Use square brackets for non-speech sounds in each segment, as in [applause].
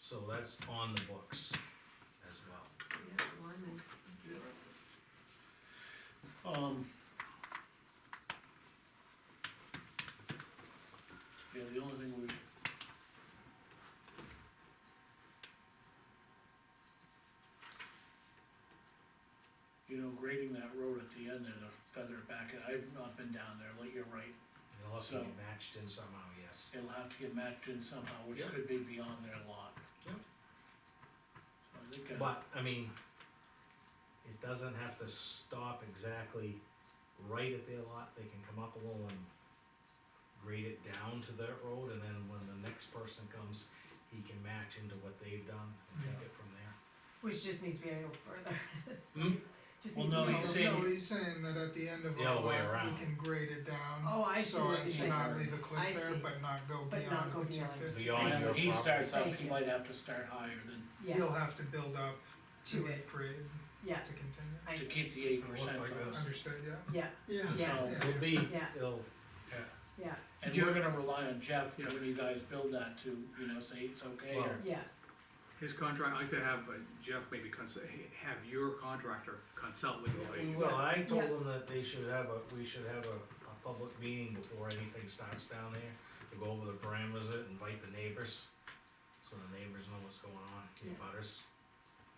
so that's on the books as well. Yeah, blimey. Um. Yeah, the only thing we. You know, grading that road at the end there to feather it back, I've not been down there, like, you're right, It'll have to be So- matched in somehow, yes. it'll have to get matched in somehow, which Yeah. could be beyond their lot. Yeah. So I think, uh, But, I mean, it doesn't have to stop exactly right at their lot, they can come up a little and grade it down to their road, and then when the next person comes, he can match into what they've done and take it from there. Which just needs to be a little further. Hmm? [laughs] Just Well, needs to no, be. a you little- see- saying- No, he's saying that at the end of The all other way that, around. we can grade it down. Oh, I see So what as you're to not saying. leave a I cliff there, see. but not go But not beyond go the two beyond. fifty. Beyond yeah, your he starts out, Thank he you. might have to start higher than, Yeah, He'll have to build up to To that it. grade yeah, to continue. I to see, keep the eight percent. like this. Understood, yeah? yeah, Yeah. Yeah. So it'll be, Yeah. it'll, yeah, And we're gonna rely on Jeff when you guys build that to, you know, say it's okay or. Well- yeah, His contract, I could have uh, Jeff maybe cons- have your contractor consult with the lady. well, I told them that they should have a, we should have a, a public meeting before anything starts down there, to go over the parameters, of it, invite the neighbors, so the neighbors know what's going on, the Yeah. butters,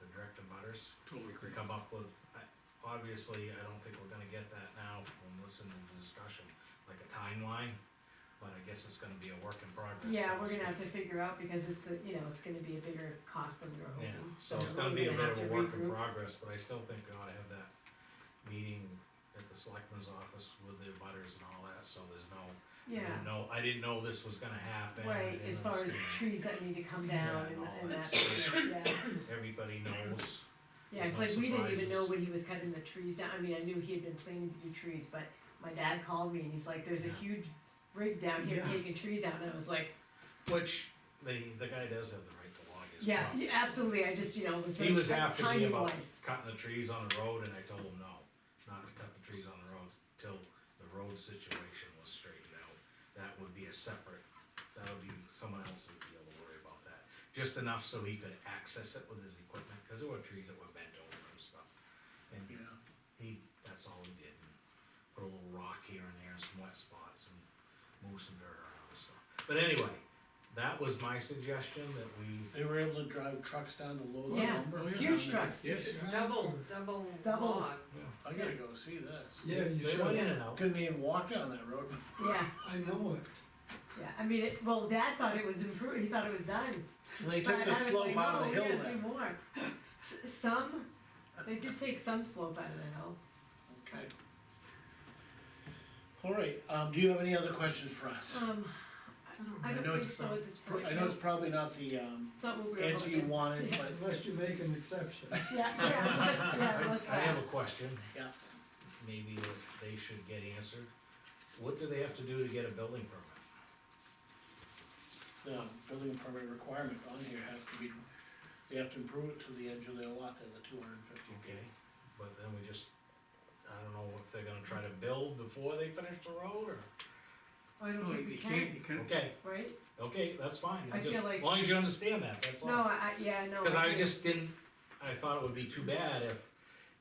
the direct butters. Totally We agree. come up with, I, obviously, I don't think we're gonna get that now from listening to the discussion, like a timeline, but I guess it's gonna be a work in progress. so yeah, to we're speak. gonna have to figure out because it's a, you know, it's gonna be a bigger cost than we were Yeah, hoping. so it's we're gonna be a gonna bit have of a to work in regroup. progress, but I still think we ought to have that meeting at the selectman's office with the butters and all that, so there's no, I Yeah, didn't know, I didn't know this was gonna happen. I right, didn't as far as understand. trees that need to come down Yeah, and, and all and that that, stuff. yeah. Everybody knows, Yeah, it's like There's no we didn't even surprises. know when he was cutting the trees down, I mean, I knew he had been planning to do trees, but my dad called me and he's like, there's a Yeah. huge rig down here Yeah. taking trees out, and I was like, which, the, the guy does have the right to log his yeah, property. yeah, absolutely, I just, you know, it was He was like, after me timing about wise, cutting the trees on the road, and I told him no, not to cut the trees on the road till the road situation was straightened out. That would be a separate, that would be someone else's deal to worry about that. Just enough so he could access it with his equipment, cause there were trees that were bent over and stuff. And Yeah, he, that's all he did, and put a little rock here and there, some wet spots, and move some dirt around, so. But anyway, that was my suggestion, that we they were able to drive trucks down to load the Yeah. lumber. huge trucks, Yeah. Double, double Double. log. I gotta go see this. Yeah, you They went in should. and out. Couldn't even walk down that road. [laughs] yeah, I know it. yeah, I mean, it, well, dad thought it was improved, he thought it was done, So they but took I the was like, slope out no, of we the hill gotta do then. more. S- Some, they did take some slope out of the hill. Okay. All right, um, do you have any other questions for us? Um, I I don't know think it's so at this point. I know it's probably not the, um, It's not what we were answer you hoping. [laughs] wanted, but Unless you make an exception. Yeah, yeah, yeah, it was I have that. a question. Yeah. Maybe that they should get answered. What do they have to do to get a building permit? the building permit requirement on here has to be, they have to improve it to the edge of their lot, then the two hundred and fifty feet. Okay, but then we just, I don't know if they're gonna try to build before they finish the road or, I don't No, think we you can't, can, you can't. okay, right? okay, that's fine. I Just- feel like- As long as you understand that, that's No, all. I, I- yeah, no. Cause I think- just didn't, I thought it would be too bad if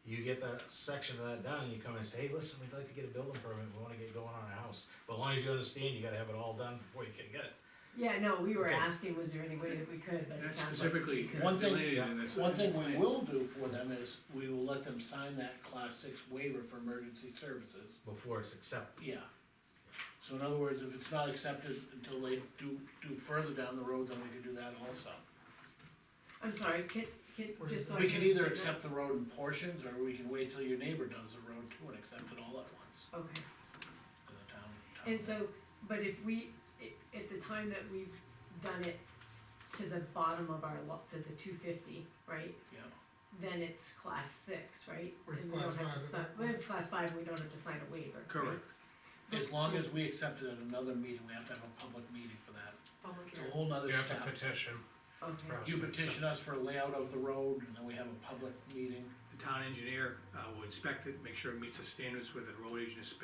you get that section of that done and you come and say, hey, listen, we'd like to get a building permit, we wanna get going on our house. But as long as you understand, you gotta have it all done before you can get it. Yeah, no, we were Okay. asking, was there any way that we could, but it That's sounds like, specifically One thing- delineated in this. One thing we will do for them is, we will let them sign that class six waiver for emergency services, Before it's accepted. yeah. So in other words, if it's not accepted until they do, do further down the road, then we can do that also. I'm sorry, can, can, Or just so I We can either understand accept the road in portions, or we can wait till your neighbor does the road too and accept it all at once that. Okay, in the town. town. and so, but if we, i- at the time that we've done it to the bottom of our lot, to the two fifty, right? Yeah, Then it's class six, right? Or it's And we don't class have to five. sign- well, it's class five, we don't have to sign a waiver. right? Correct. as long as we accept it at another meeting, we have to have a public meeting for that, Public it's a hearing. whole nother step. petition. Okay, You petition us for a layout of the road, and then we have a public meeting. The town engineer uh, will inspect it, make sure it meets the standards with the road agent is spe-